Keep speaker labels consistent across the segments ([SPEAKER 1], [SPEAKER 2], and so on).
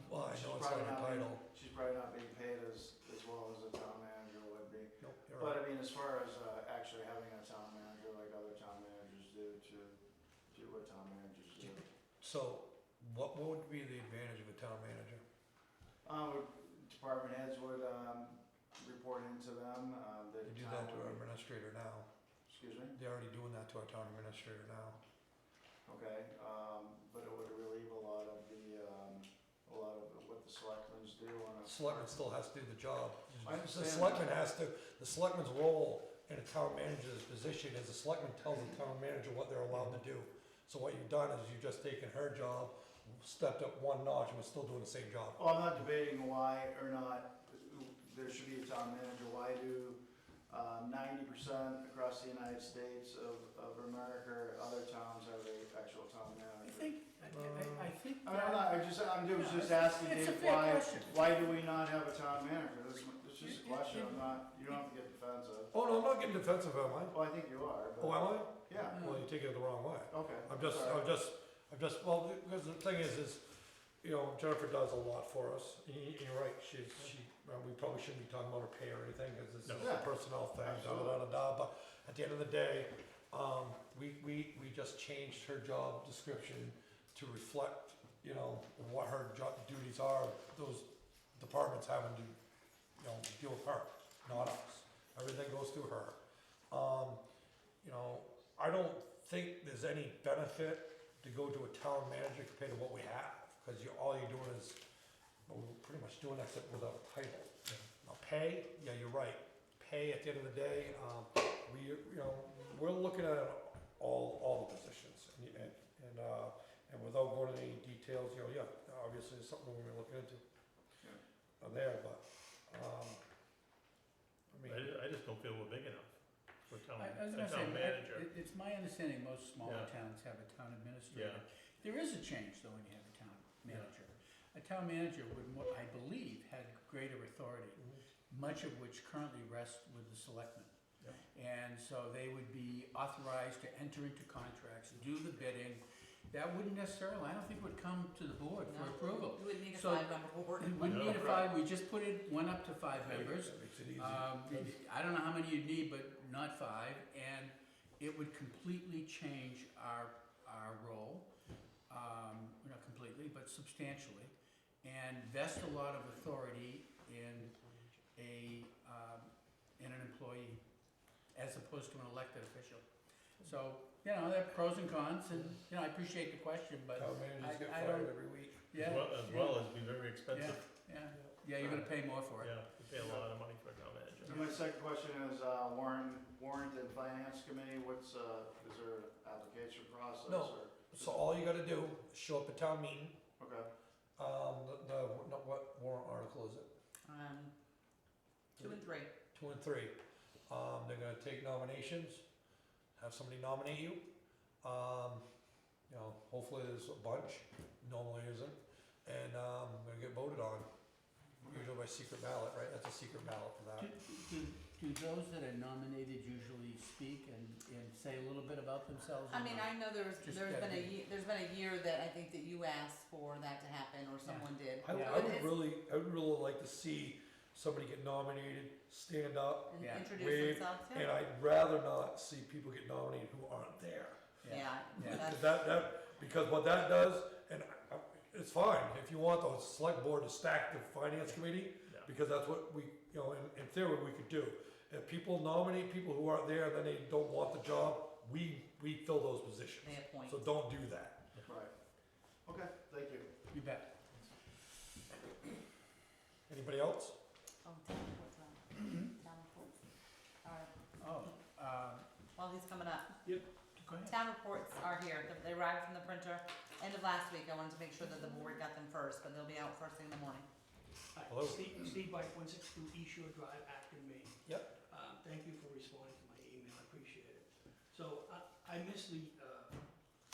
[SPEAKER 1] it's on
[SPEAKER 2] probably
[SPEAKER 1] her
[SPEAKER 2] not
[SPEAKER 1] title.
[SPEAKER 2] being- She's probably not being paid as, as well as a town manager would be.
[SPEAKER 1] Nope, you're right.
[SPEAKER 2] But I mean, as far as uh, actually having a town manager like other town managers do to do what town managers do.
[SPEAKER 1] So what what would be the advantage of a town manager?
[SPEAKER 2] Um, department heads would, um, report into them, uh, the
[SPEAKER 1] They do
[SPEAKER 2] town
[SPEAKER 1] that to our
[SPEAKER 2] would-
[SPEAKER 1] administrator now.
[SPEAKER 2] Excuse me?
[SPEAKER 1] They're already doing that to our town administrator now.
[SPEAKER 2] Okay, um, but it would relieve a lot of the, um, a lot of what the selectmen's do on a.
[SPEAKER 1] Selectman still has to do the job.
[SPEAKER 2] I
[SPEAKER 1] The
[SPEAKER 2] understand.
[SPEAKER 1] selectman has to, the selectman's role in a town manager's position is the selectman tells the town manager what they're allowed to do. So what you've done is you've just taken her job, stepped up one notch, and was still doing the same job.
[SPEAKER 2] Well, I'm not debating why or not there should be a town manager. Why do um, ninety percent across the United States of, of America, or other towns have a actual town
[SPEAKER 3] I
[SPEAKER 2] manager?
[SPEAKER 3] think, I- I, I think.
[SPEAKER 2] I mean, I'm
[SPEAKER 3] that-
[SPEAKER 2] not, I just, I'm just-
[SPEAKER 3] No,
[SPEAKER 2] just asking
[SPEAKER 3] it's a
[SPEAKER 2] Dave,
[SPEAKER 3] fair
[SPEAKER 2] why,
[SPEAKER 3] question.
[SPEAKER 2] why do we not have a town manager? This, this is a
[SPEAKER 3] You- you-
[SPEAKER 2] question, I'm
[SPEAKER 3] you-
[SPEAKER 2] not, you don't have to get defensive.
[SPEAKER 1] Oh, no, I'm not getting defensive, am I?
[SPEAKER 2] Well, I think you are,
[SPEAKER 1] Oh,
[SPEAKER 2] but,
[SPEAKER 1] am I?
[SPEAKER 2] yeah,
[SPEAKER 1] Well, you take it the wrong way.
[SPEAKER 2] okay.
[SPEAKER 1] I'm just,
[SPEAKER 2] sorry.
[SPEAKER 1] I'm just, I'm just, well, because the thing is, is, you know, Jennifer does a lot for us. Y- y- You're right, she's, she, well, we probably shouldn't be talking about her pay or anything, because this is
[SPEAKER 2] No.
[SPEAKER 1] a personnel thing, da, da, da, da, da. But at the end of the day, um, we, we, we just changed her job description to reflect, you know, what her job duties are, those departments having to, you know, deal with her, not us. Everything goes through her. Um, you know, I don't think there's any benefit to go to a town manager compared to what we have, because you're, all you're doing is, well, we're pretty much doing that except without a title. Now, pay, yeah, you're right, pay at the end of the day, um, we, you know, we're looking at all, all the positions, and- and, and, uh, and without going into any details, you know, yeah, obviously, it's something we're gonna look into on there, but, um, I mean,
[SPEAKER 4] I, I just don't feel we're big enough for town,
[SPEAKER 3] I I was gonna
[SPEAKER 4] a
[SPEAKER 3] say,
[SPEAKER 4] town manager.
[SPEAKER 3] it- it's my understanding most smaller
[SPEAKER 4] Yeah.
[SPEAKER 3] towns have a town
[SPEAKER 4] Yeah.
[SPEAKER 3] administrator. There is a change though when you have a town manager. A town manager would, mo- I believe, had greater authority, much of which currently rests with the selectmen.
[SPEAKER 4] Yeah.
[SPEAKER 3] And so they would be authorized to enter into contracts, do the bidding. That wouldn't necessarily, I don't think would come to the board for
[SPEAKER 5] No.
[SPEAKER 3] approval.
[SPEAKER 5] You would need a
[SPEAKER 3] So-
[SPEAKER 5] five-member board.
[SPEAKER 3] We wouldn't
[SPEAKER 4] No,
[SPEAKER 3] need a
[SPEAKER 4] right.
[SPEAKER 3] five, we just put it, one up to five members.
[SPEAKER 1] that makes it easy.
[SPEAKER 3] Um, I don't know how many you'd need, but not five, and it would completely change our, our role. Um, not completely, but substantially, and vest a lot of authority in a, um, in an employee as opposed to an elected official. So, you know, there are pros and cons, and, you know, I appreciate the question, but
[SPEAKER 1] town managers get
[SPEAKER 3] I, I
[SPEAKER 1] fired
[SPEAKER 3] don't,
[SPEAKER 1] every week.
[SPEAKER 3] yeah.
[SPEAKER 4] As well, as
[SPEAKER 3] yeah.
[SPEAKER 4] well as be
[SPEAKER 3] Yeah,
[SPEAKER 4] very expensive,
[SPEAKER 3] yeah, yeah, you're gonna pay more for it.
[SPEAKER 4] yeah, we pay a lot of money for a town
[SPEAKER 2] So
[SPEAKER 4] manager.
[SPEAKER 2] my second question is, uh, warrant, warrant and finance committee, what's, uh, is there an application process?
[SPEAKER 1] No.
[SPEAKER 2] or-
[SPEAKER 1] So all you gotta do, is show up at town meeting,
[SPEAKER 2] Okay,
[SPEAKER 1] um, the, the, no, what warrant article is it?
[SPEAKER 5] Um, two and three.
[SPEAKER 1] Two and three. Um, they're gonna take nominations, have somebody nominate you. Um, you know, hopefully there's a bunch, normally isn't, and, um, gonna get voted on. Usually by secret ballot, right? That's a secret ballot for
[SPEAKER 3] Do,
[SPEAKER 1] that.
[SPEAKER 3] do- do those that are nominated usually speak and, and say a little bit about themselves? or
[SPEAKER 5] I mean,
[SPEAKER 3] not?
[SPEAKER 5] I know there's,
[SPEAKER 3] Just
[SPEAKER 5] there's been a,
[SPEAKER 3] gotta be-
[SPEAKER 5] ye- there's been a year that I think that you asked for that to happen, or someone did.
[SPEAKER 1] I, I would really, I would really like to see somebody get nominated, stand up,
[SPEAKER 5] And
[SPEAKER 3] Yeah.
[SPEAKER 5] Introduce
[SPEAKER 1] wave,
[SPEAKER 5] themselves,
[SPEAKER 1] and
[SPEAKER 5] yeah.
[SPEAKER 1] I'd rather not see people get nominated who aren't there.
[SPEAKER 5] Yeah,
[SPEAKER 3] Yeah.
[SPEAKER 1] Because
[SPEAKER 5] that's,
[SPEAKER 1] that, that, because what that does, and I- I- it's fine, if you want the select board to stack the finance committee,
[SPEAKER 4] Yeah.
[SPEAKER 1] because that's what we, you know, in, in theory, we could do. If people nominate people who aren't there, then they don't want the job, we, we fill those positions.
[SPEAKER 5] They appoint.
[SPEAKER 1] So don't do that.
[SPEAKER 2] right. Okay, thank you.
[SPEAKER 3] You bet.
[SPEAKER 1] Anybody else?
[SPEAKER 5] oh, town reports, uh, town reports. All right,
[SPEAKER 3] Oh, uh,
[SPEAKER 5] while he's coming up,
[SPEAKER 3] go ahead.
[SPEAKER 5] town reports are here, they arrived from the printer end of last week, I wanted to make sure that the board got them first, but they'll be out first thing in the morning.
[SPEAKER 1] Hello.
[SPEAKER 6] Hi, Steve, Steve Bike, one six two East Shore Drive, Acton, Maine.
[SPEAKER 1] Yep.
[SPEAKER 6] Um, Thank you for responding to my email, I appreciate it. So I- I missed the, uh,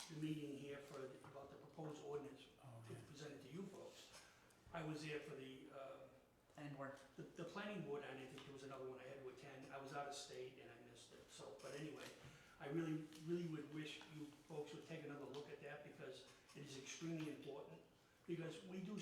[SPEAKER 6] the meeting here for, the- about the proposed ordinance
[SPEAKER 3] Oh,
[SPEAKER 6] to presented to you folks. I was there for the, uh,
[SPEAKER 5] Planning board,
[SPEAKER 6] the, the planning board, and I think there was another one I had to attend, I was out of state and I missed it, so, but anyway, I really, really would wish you folks would take another look at that because it is extremely important, because we do